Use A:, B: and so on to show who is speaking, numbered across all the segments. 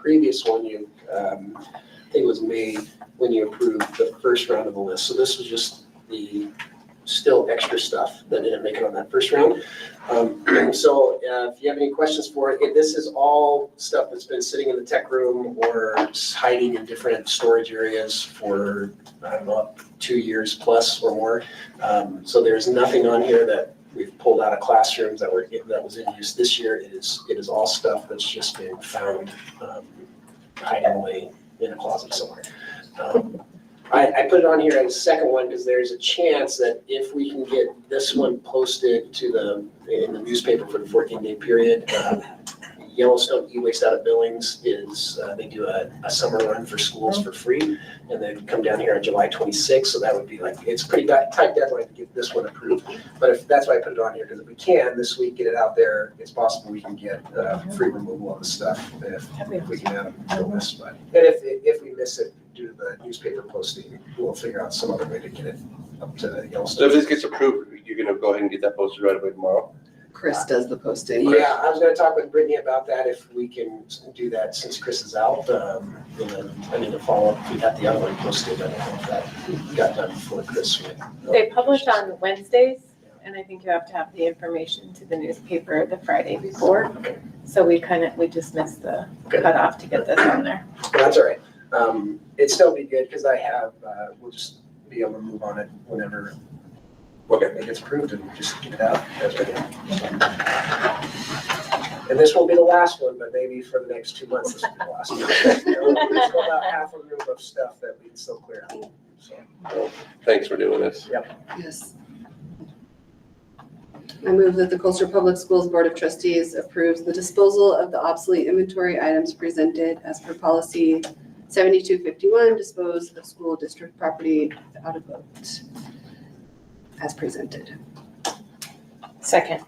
A: previous one you, um, I think it was made when you approved the first round of the list. So this was just the still extra stuff that didn't make it on that first round. Um, So uh, if you have any questions for it, it- this is all stuff that's been sitting in the tech room or hiding in different storage areas for, I don't know, two years plus or more. Um, So there's nothing on here that we've pulled out of classrooms that were, that was in use this year. It is, it is all stuff that's just been found um, hiding away in a closet somewhere. Um, I, I put it on here on the second one because there's a chance that if we can get this one posted to the, in the newspaper for the fourteen day period, um, Yellowstone E-Waste out of Billings is, uh, they do a, a summer run for schools for free. And they come down here on July twenty-sixth, so that would be like, it's pretty tight tight deadline to get this one approved. But if, that's why I put it on here, because if we can this week, get it out there, it's possible we can get uh, free removal of the stuff if if we can have the list. But and if, if we miss it due to the newspaper posting, we'll figure out some other way to get it up to
B: So if
A: Yellowstone.
B: this gets approved, you're gonna go ahead and get that posted right away tomorrow?
C: Chris does the posting.
A: Yeah, I was gonna talk with Brittany about that, if we can do that since Chris is out. um, And then I need to follow up, we got the other one posted, I don't know if that got done before Chris went.
D: They publish on Wednesdays, and I think you have to have the information to the newspaper the Friday before. So we kind of, we just missed the
A: Okay.
D: cutoff to get this on there.
A: But That's all right. Um, it'd still be good because I have, uh, we'll just be able to move on it whenever it gets approved and just get it out. as we go. And this won't be the last one, but maybe for the next two months, this will be the last one. There's still about half a room of stuff that we can still clear out. So,
B: Thanks for doing this.
C: Yes. I move that the Colchester Public Schools Board of Trustees approves the disposal of the obsolete inventory items presented as per policy 7251, dispose of school district property out of vote as presented.
D: Second.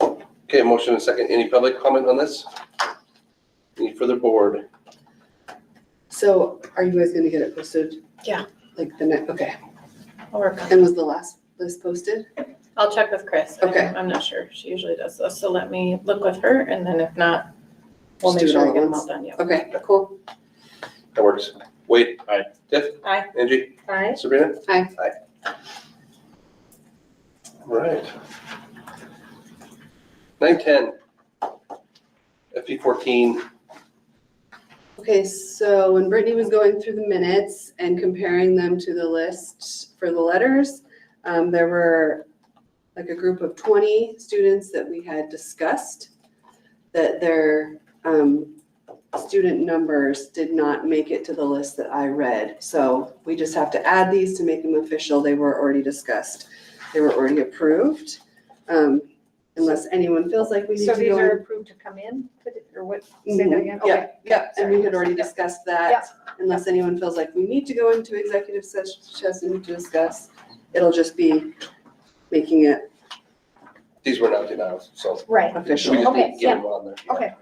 B: Okay, motion and second. Any public comment on this? Any further board?
C: So are you guys going to get it posted?
D: Yeah.
C: Like the next, okay.
D: I'll work on it.
C: And was the last list posted?
D: I'll check with Chris.
C: Okay.
D: I'm not sure. She usually does this, so let me look with her, and then if not, we'll
C: Just
D: make
C: do it
D: sure
C: all
D: we
C: at
D: get them
C: once.
D: all done, yeah.
C: Okay, cool.
B: That works. Wade?
E: Aye.
B: Tiff?
D: Aye.
B: Angie?
D: Aye.
B: Sabrina?
C: Aye.
B: Aye. All right. Nine ten. FP fourteen.
C: Okay, so when Brittany was going through the minutes and comparing them to the list for the letters, um, there were like a group of twenty students that we had discussed that their, um, student numbers did not make it to the list that I read. So we just have to add these to make them official. They were already discussed. They were already approved. Um, unless anyone feels like we need to
F: So
C: go.
F: these are
C: in-
F: approved to come in, to the- or what, say that
C: Mhm.
F: again?
C: Yeah,
F: Okay.
C: yeah, and we had already
F: Yep.
C: discussed that. Unless anyone feels like we need to go into executive ses- session to discuss, it'll just be making it
B: These were not denials, so
F: Right,
B: we
C: official.
B: just need
F: Okay,
B: to get them on there. Yeah.
F: okay.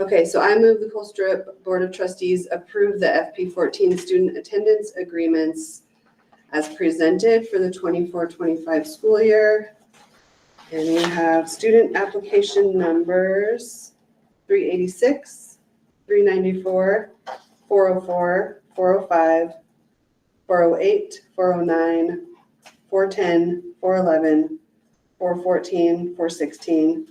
C: Okay, so I move the Colstrip Board of Trustees approve the FP fourteen student attendance agreements as presented for the 24-25 school year. And we have student application numbers three eighty-six, three ninety-four, 404, 405, 408, 409, 410, 411, 414, 416,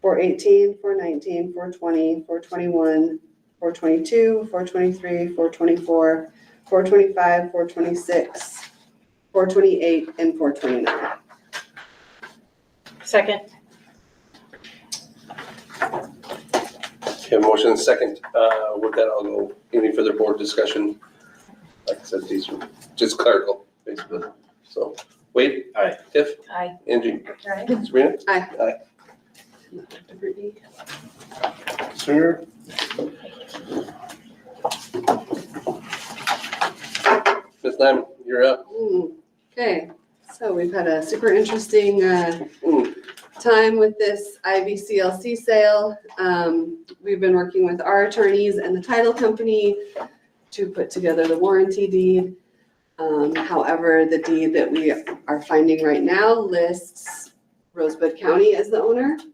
C: 418, 419, 420, 421, 422, 423, 424, 425, 426, 428, and 429.
D: Second.
B: Okay, motion and second. Uh, with that, I'll go. Any further board discussion? Like I said, these are just clerical, basically. So, Wade?
E: Aye.
B: Tiff?
D: Aye.
B: Angie?
D: Aye.
B: Sabrina? Sir. Ms. Lyman, you're up.
C: Mm, Okay, so we've had a super interesting uh,
B: Mm.
C: time with this IVCLC sale. Um, We've been working with our attorneys and the title company to put together the warranty deed. Um, However, the deed that we are finding right now lists Rosebud County as the owner.